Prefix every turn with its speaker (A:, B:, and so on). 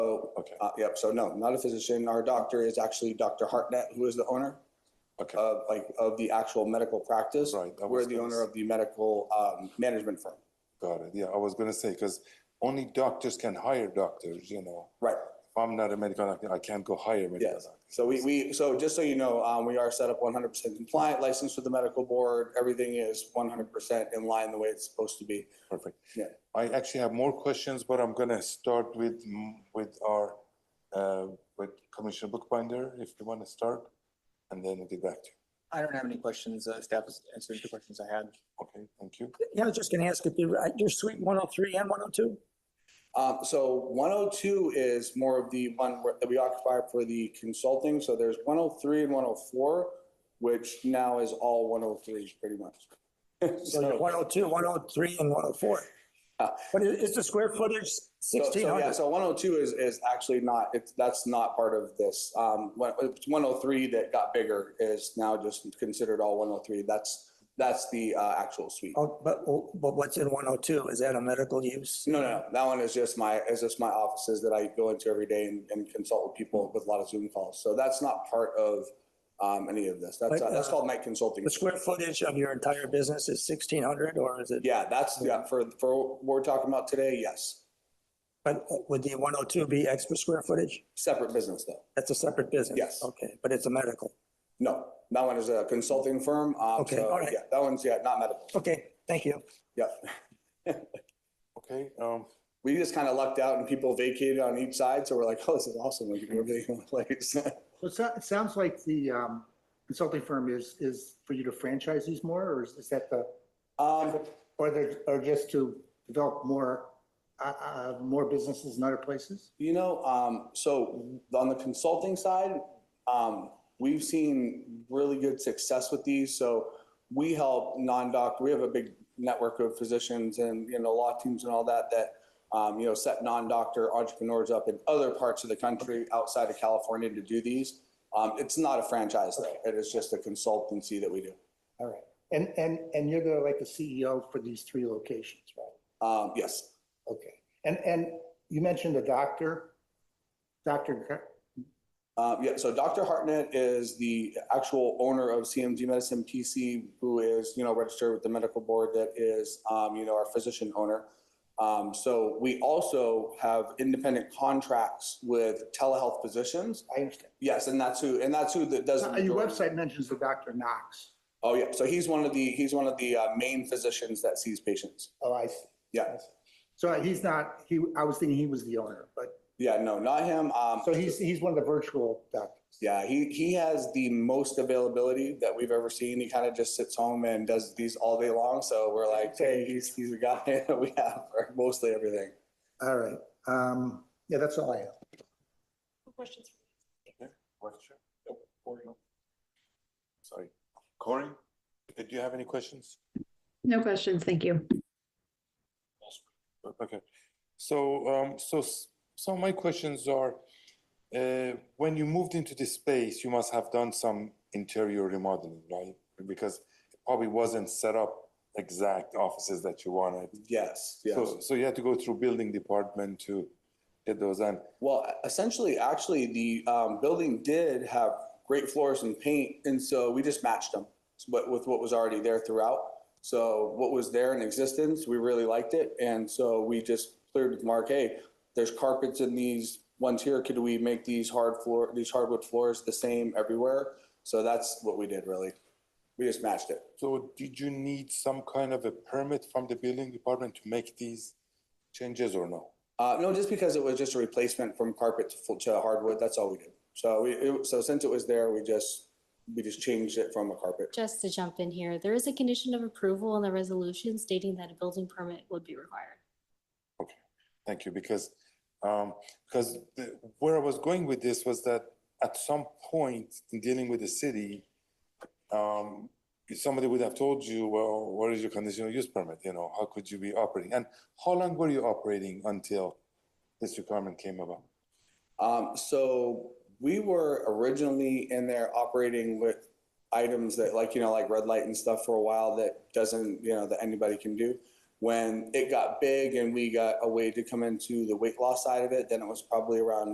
A: Okay,
B: Uh, yep, so no, not a physician. Our doctor is actually Dr. Hartnett, who is the owner
A: okay,
B: of, like, of the actual medical practice.
A: Right, that
B: We're
A: was
B: the
A: nice.
B: owner of the medical, um, management firm.
A: got it. Yeah, I was gonna say, because only doctors can hire doctors, you know.
B: Right,
A: If I'm not a medical doctor, I can't go hire a medical
B: yes.
A: doctor.
B: So we, we, so just so you know, um, we are set up one hundred percent compliant, licensed with the medical board. Everything is one hundred percent in line the way it's supposed to be.
A: Perfect.
B: Yeah.
A: I actually have more questions, but I'm gonna start with, mm, with our, uh, with Commissioner Bookbinder, if you wanna start, and then we'll get back to you.
C: I don't have any questions. Uh, Staff has answered the questions I had.
A: Okay, thank you.
D: Yeah, I was just gonna ask if you, uh, your suite one oh three and one oh two?
B: Um, so one oh two is more of the one where- that we occupy for the consulting. So there's one oh three and one oh four, which now is all one oh threes pretty much.
D: So you're one oh two, one oh three, and one oh four.
B: Uh,
D: But is, is the square footage
B: So-
D: sixteen
B: So, yeah,
D: hundred?
B: so one oh two is, is actually not, it's, that's not part of this. Um, one oh three that got bigger is now just considered all one oh three. That's, that's the, uh, actual suite.
D: Oh, but, but what's in one oh two? Is that a medical use?
B: No, no, that one is just my, is just my offices that I go into every day and, and consult with people with a lot of Zoom calls. So that's not part of, um, any of this. That's,
D: But,
B: uh, that's
D: uh,
B: called night consulting.
D: The square footage of your entire business is sixteen hundred or is it?
B: Yeah, that's, yeah, for, for what we're talking about today, yes.
D: But would the one oh two be extra square footage?
B: Separate business though.
D: That's a separate business?
B: Yes.
D: Okay, but it's a medical.
B: No, that one is a consulting firm. Um,
D: Okay,
B: so,
D: all right.
B: Yeah, that one's, yeah, not medical.
D: Okay, thank you.
B: Yep.
A: Okay, um,
B: we just kind of lucked out and people vacated on each side. So we're like, oh, this is awesome. We can do everything in one place.
E: So it sou- it sounds like the um, consulting firm is, is for you to franchise these more, or is is that the,
B: um,
E: or they're, or just to develop more, uh, uh, more businesses in other places?
B: you know, um, so on the consulting side, um, we've seen really good success with these. So we help non-doctor, we have a big network of physicians and, you know, law teams and all that, that, um, you know, set non-doctor entrepreneurs up in other parts of the country outside of California to do these. Um, it's not a franchise though. It is just a consultancy that we do.
E: All right. And, and, and you're the, like the CEO for these three locations, right?
B: Um, yes.
E: Okay. And, and you mentioned the doctor, Dr. Gar-
B: Um, yeah, so Dr. Hartnett is the actual owner of CMG Medicine PC, who is, you know, registered with the medical board that is, um, you know, our physician owner. Um, so we also have independent contracts with telehealth physicians.
E: I understand.
B: Yes, and that's who, and that's who that does. the
E: Uh, Your
B: majority-
E: website mentions the Dr. Knox.
B: Oh, yeah, so he's one of the, he's one of the, uh, main physicians that sees patients.
E: Oh, I see.
B: Yeah.
E: So he's not, he, I was thinking he was the owner, but,
B: Yeah, no, not him. Um,
E: so he's, he's one of the virtual doctors.
B: Yeah, he, he has the most availability that we've ever seen. He kind of just sits home and does these all day long. So we're like, hey, he's, he's a guy that we have for mostly everything.
E: All right. Um, yeah, that's all I have.
F: Questions?
A: Question? Sorry, Corey, did you have any questions?
F: No questions, thank you.
A: Okay, so, um, so, s- so my questions are, uh, when you moved into this space, you must have done some interior remodeling, right? Because it probably wasn't set up exact offices that you wanted.
B: Yes, yes.
A: So, so you had to go through building department to get those, and
B: Well, essentially, actually, the um, building did have great floors and paint, and so we just matched them with, with what was already there throughout. So what was there in existence, we really liked it, and so we just cleared with Mark, hey, there's carpets in these ones here. Could we make these hard floor, these hardwood floors the same everywhere? So that's what we did, really. We just matched it.
A: so did you need some kind of a permit from the building department to make these changes or no?
B: Uh, no, just because it was just a replacement from carpet to, full, to hardwood. That's all we did. So we, it, so since it was there, we just we just changed it from a carpet.
G: Just to jump in here, there is a condition of approval in the resolution stating that a building permit would be required.
A: Thank you, because, um, because the- where I was going with this was that at some point in dealing with the city, um, somebody would have told you, well, what is your conditional use permit? You know, how could you be operating? And how long were you operating until this requirement came about?
B: Um, so we were originally in there operating with items that like, you know, like red light and stuff for a while that doesn't, you know, that anybody can do. When it got big and we got a way to come into the weight loss side of it, then it was probably around